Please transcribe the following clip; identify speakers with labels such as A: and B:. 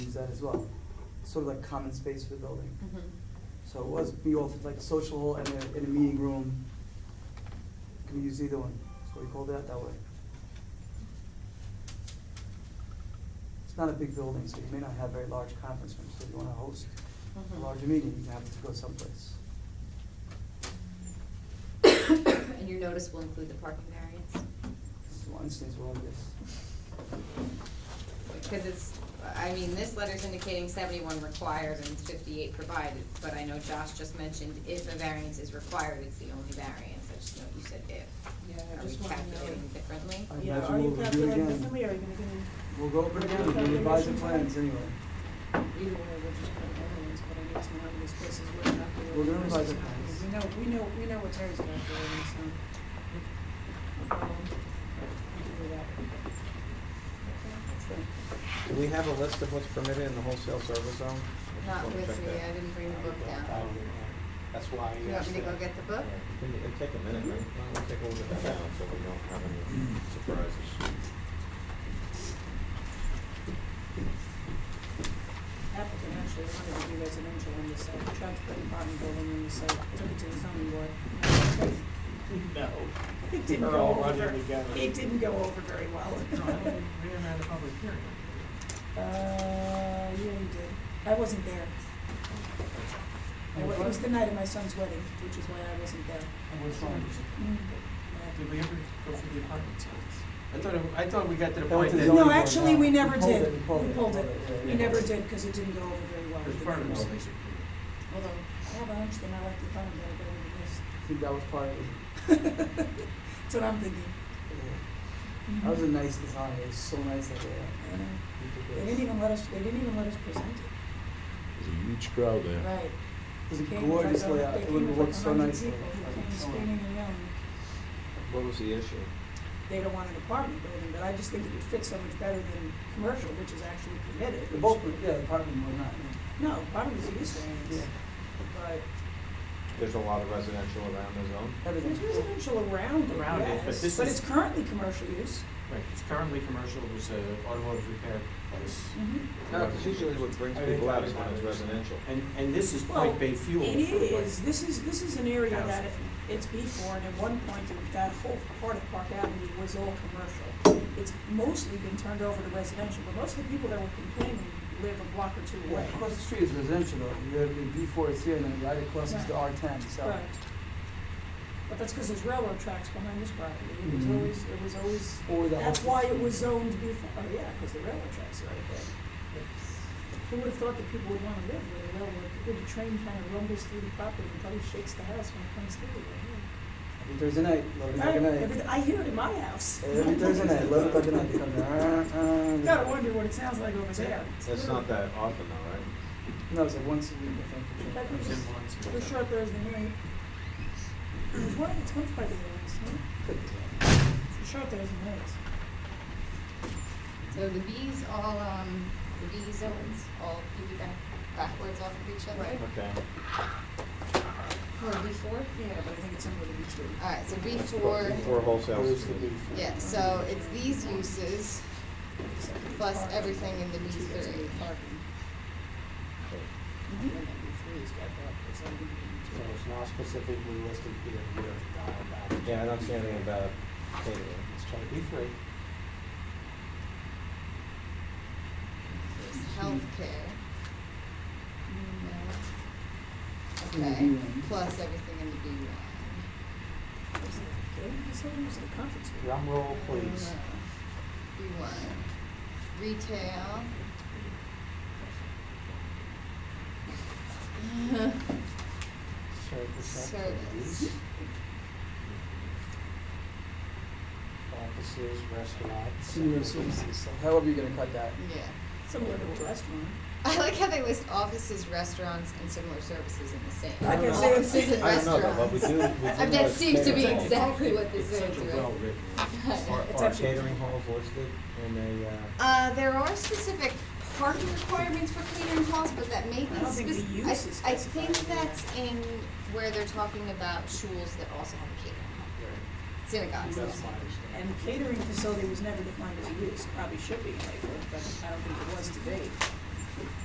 A: use that as well. Sort of like common space for the building.
B: Mhm.
A: So it was, be all like a social hall and a, in a meeting room. Can we use either one, so we called it out that way. It's not a big building, so you may not have very large conference rooms, so if you wanna host a
C: Mm-hmm.
B: Mhm.
A: larger meeting, you have to go someplace.
B: And your notice will include the parking variance?
A: This is one instance where all this,
B: Because it's, I mean, this letter's indicating seventy-one required and fifty-eight provided, but I know Josh just mentioned if a variance is required, it's the only variance, I just know you said if.
C: Yeah, I
B: Are we
C: just want to
B: calculating
C: know.
B: differently?
A: I
C: Yeah,
A: imagine
C: are you
A: we'll review it
C: calculating
A: again.
C: differently, or are you gonna give
A: We'll go over it again, we can
C: Okay.
A: revise the plans anyway.
C: me, either way, we'll just put everyone's, but I need to know how many spaces we're calculating.
A: We're gonna
C: versus
A: revise the
C: how many.
A: plans.
C: We know, we know, we know what Terry's calculating, so. no problem. We'll do that.
D: Do we have a list of what's permitted in the wholesale service zone? I just
B: Not
D: wanna
B: with
D: check
B: me,
D: that.
B: I didn't bring the book down.
E: That's why
B: Do you
E: I
B: want
E: asked
B: me to go
E: that.
B: get the book?
D: Can you, it'll take a minute, right? Why don't we take a look at that now, so we don't have any surprises?
C: Applicant actually wanted to do residential on this site, tried to put an apartment building on this site, took it to the zoning board. No. It didn't
E: They're all
C: go over,
E: running together.
C: it didn't go over very well.
F: We haven't had a public hearing.
C: Uh, yeah, you did. I wasn't there. I wa- It was the night of my son's wedding, which is why I wasn't there. Mm.
F: And what's wrong?
C: Yeah.
F: Did we ever go through the apartment sites?
E: I thought, I thought we got to the
A: That
E: point
A: was the
E: that.
A: zoning
C: No,
A: board,
C: actually, we
A: huh?
C: never
A: pulled it,
C: did. We pulled it.
A: yeah,
C: We
A: yeah.
C: never did, because it didn't go over very well. with
F: Because
C: the
F: apartment
C: people.
F: sites
C: Although, I have a hunch they might like the apartment building better
A: I think that was part of it.
C: than this. That's what I'm thinking.
A: That was a nice design, it was so nice that
C: I know. uh, They
A: they,
C: didn't even let us, they didn't even let us present it.
G: There's a huge crowd there.
C: Right.
A: it was a
C: Came with like uh,
A: gorgeous
C: a-
A: layout,
C: they
A: it
C: came
A: would
C: with
A: have
C: like
A: looked so
C: 100
A: nice.
C: people who came screaming and yelling.
D: What was the issue?
C: they don't want an apartment building, but I just think it would fit so much better than commercial, which is actually permitted.
A: The
C: which-
A: bulk, yeah, the apartment was not,
C: No, apartment is a use variance, but
D: There's a lot of residential around the zone?
A: everything.
C: there's residential around it,
F: Around it, but
C: yes,
F: this
C: but
F: is-
C: it's currently commercial use.
F: Right, it's currently commercial, it was an automotive repair place.
C: Mhm.
F: Mm-hmm.
D: No, it's usually what brings
F: I think
D: people out
F: I-
D: is when it's residential.
F: And, and this is
C: Well,
F: Point Bay Fuel.
C: It
F: for, like,
C: is, this is, this is an area that
F: Thousand.
C: it's B four, and at one point, it- that whole part of Park Avenue was all commercial. It's mostly been turned over to residential, but most of the people that were complaining live a block or two
A: Yeah,
C: away.
A: across the street is residential though, you have the B four is here and then right across is the R ten, so.
C: Right. But that's because there's railroad tracks behind this property, it was
A: Mhm.
C: always, it was always,
A: Or the
C: that's
A: office.
C: why it was zoned before, oh yeah, because the railroad tracks are right there. Who would have thought that people would want to live where the railroad, where the train kind of rumbles through the property and probably shakes the house when it comes through?
A: Every Thursday night, eleven o'clock at
C: Right,
A: night.
C: every- I hear it in my house.
A: Every Thursday night, eleven o'clock at night, they come down.
C: Gotta wonder what it sounds like over there.
D: It's not that often though,
A: No, it's like once a week, I think.
C: That
F: it was
C: was-
F: in once, it
C: For
F: was
C: sure
F: out.
C: Thursday night. It was one of the tenth by the railroads, no?
A: Could be.
C: For sure Thursday nights.
B: So the Bs all, um, the B zones all piggyback backwards off of each other?
C: Right.
D: right? Okay.
B: Or B four?
C: Yeah, but I think it's under the B two.
B: Alright, so B
D: Let's put
B: four,
D: Before wholesale.
E: Where's the beef?
B: yeah, so it's these uses plus everything in the B three.
C: Mm-hmm.
E: So it's not specifically listed here, we have to dial back.
D: Yeah, I don't see anything about catering.
E: Let's try B three.
B: There's healthcare.
A: In
B: No.
A: the
B: Okay,
A: B1.
B: plus everything in the B one.
E: Drum roll, please.
B: B one, retail.
E: Service
B: Service.
E: activities. Offices, restaurants.
A: Senior services, so however you're gonna cut that.
B: Yeah.
C: Similar to a restaurant.
B: I like how they list offices, restaurants, and similar services in the same.
C: I can say it's-
B: Offices and
D: I don't know, though, but we
B: restaurants.
D: do, we do know
B: That
D: it's
B: seems to be
D: catering.
B: exactly what this
F: It's such
B: is,
F: a
B: right?
F: well-written.
D: Are,
C: It's
D: are
C: actually-
D: catering halls listed in a, uh?
B: Uh, there are specific parking requirements for catering halls, but that may be
C: I don't think the
B: spec-
C: use is
B: I, I think
C: specified in
B: that's in where they're talking about schools that also have a catering hall, synagogues.
E: That's my understanding.
C: And catering facility was never defined as a use, probably should be in Lakewood, but I don't think it was today.